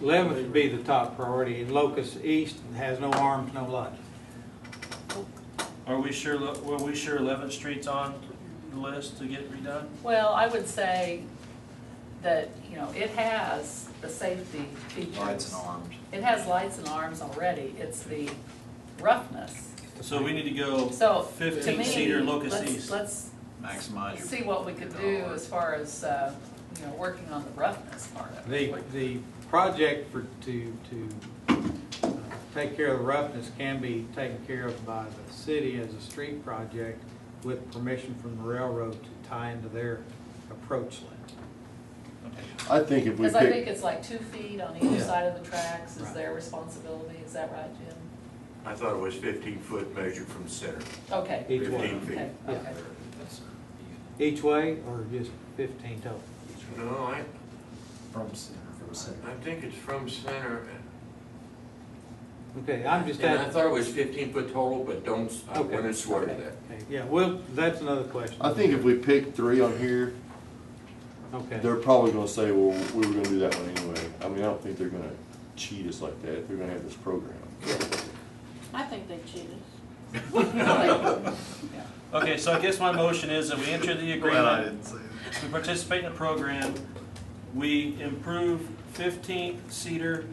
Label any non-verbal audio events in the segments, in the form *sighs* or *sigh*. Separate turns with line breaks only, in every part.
Eleventh would be the top priority, and Locust East has no arms, no lights.
Are we sure, Lo- were we sure 11th Street's on the list to get redone?
Well, I would say that, you know, it has the safety features.
Lights and arms.
It has lights and arms already, it's the roughness.
So we need to go
So, to me,
15 seater Locust
let's-
East.
Let's
Maximize your.
see what we could do as far as, uh, you know, working on the roughness part of
The,
it.
the project for, to, to uh, take care of the roughness can be taken care of by the city as a street project with permission from the railroad to tie into their approach lane.
I think if we
Because I think
pick,
it's like two feet on either
Yeah.
side of the tracks is
Right.
their responsibility, is that right, Jim?
I thought it was fifteen foot measured from the center,
Okay,
Each way,
fifteen feet.
okay,
Yeah.
okay.
uh,
each way or just fifteen total?
No, I,
From center. From center.
I think it's from center.
Okay, I'm just
And I
asking.
thought it was fifteen foot total, but don't, I
Okay,
wouldn't swear to
okay.
that.
Okay, Yeah, well, that's another question.
I think if we pick three on here,
Okay,
they're probably gonna say, well, we were gonna do that one anyway. I mean, I don't think they're gonna cheat us like that. They're gonna have this program.
I think they
*laughs*
cheated.
Okay, so I guess my motion is that we enter the
*laughs*
agreement,
say that.
we participate in the program, we improve 15th Cedar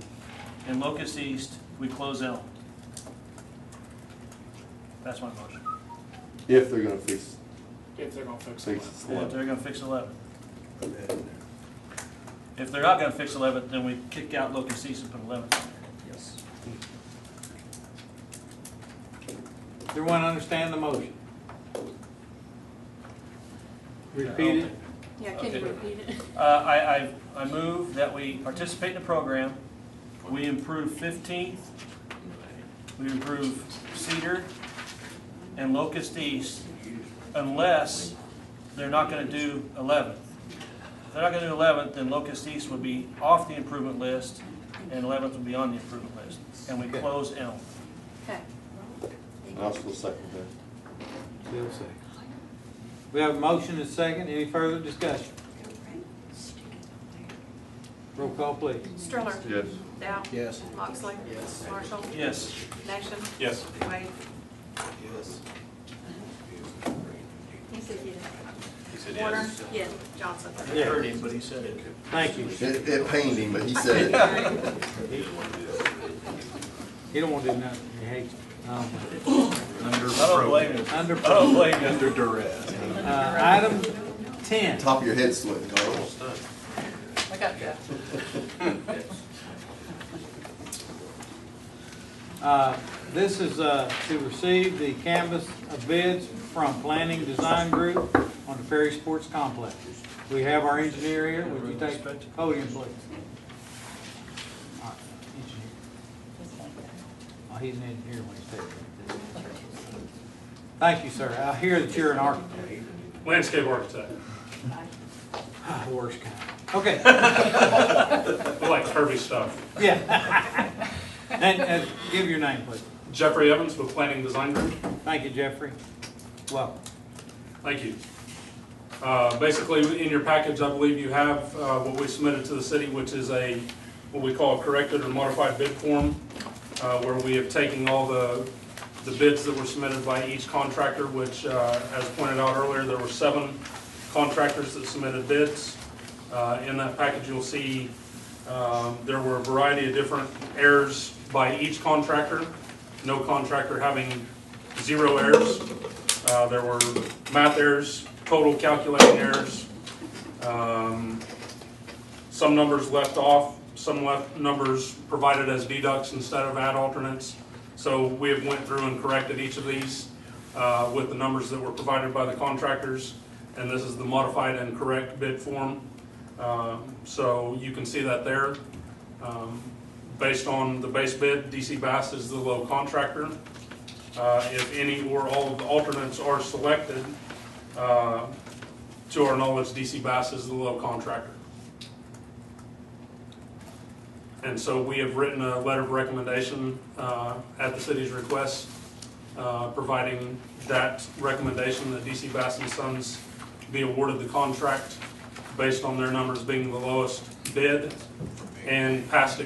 and Locust East, we close Elm. That's my motion.
If they're gonna fix,
If they're gonna fix it.
fix
If
it.
they're gonna fix 11. If they're not gonna fix 11, then we kick out Locust East and put 11.
Yes.
everyone understand the motion? Repeat it?
Yeah, can you
Okay.
repeat it?
Uh, I, I, I move that we participate in the program, we improve 15th, we improve Cedar and Locust East unless they're not gonna do 11th. If they're not gonna do 11th, then Locust East would be off the improvement list and 11th would be on the improvement list, and we close Elm.
Okay.
And I'll still second that.
Still second. We have a motion and second, any further discussion? Roll call, please.
Stroller.
Yes.
Dow.
Yes.
Moxley. Yes. Marshall.
Yes.
Nation.
Yes.
Wade.
Yes.
He said yes.
Warner.
Yes.
Johnson. *laughs*
Yeah.
Heard him, but he said it.
Thank you.
It, it pained him, but he said it.
He don't want to do nothing, he hates it. Um,
I don't blame him.
Under,
I don't blame him.
Under duress.
uh, item ten,
Top of your head sweating, Carl.
I got that.
uh, this is, uh, to receive the canvas of bids from Planning Design Group on the Ferry Sports Complex. We have our engineer here, would you take the podium, please? All right, engineer. Oh, he's an engineer when he's taking it. Thank you, sir. I hear that you're an architect.
Landscape architect,
Ah, *sighs* Worst kind. Okay,
I like curvy stuff.
yeah. *laughs* And, and give your name, please.
Jeffrey Evans with Planning Design Group.
Thank you, Jeffrey. Welcome.
Thank you. Uh, Basically, in your package, I believe you have uh, what we submitted to the city, which is a, what we call a corrected or modified bid form, uh, where we have taken all the, the bids that were submitted by each contractor, which, uh, as pointed out earlier, there were seven contractors that submitted bids. Uh, In that package, you'll see um, there were a variety of different errors by each contractor, no contractor having zero errors. Uh, There were math errors, total calculating errors, um, some numbers left off, some left numbers provided as deducts instead of add alternates. So we have went through and corrected each of these uh, with the numbers that were provided by the contractors, and this is the modified and correct bid form. Um, So you can see that there. Um, Based on the base bid, DC Bass is the low contractor. Uh, If any or all of the alternates are selected, uh, to our knowledge, DC Bass is the low contractor. And so we have written a letter of recommendation uh, at the city's request, uh, providing that recommendation that DC Bass and Sons be awarded the contract based on their numbers being the lowest bid and past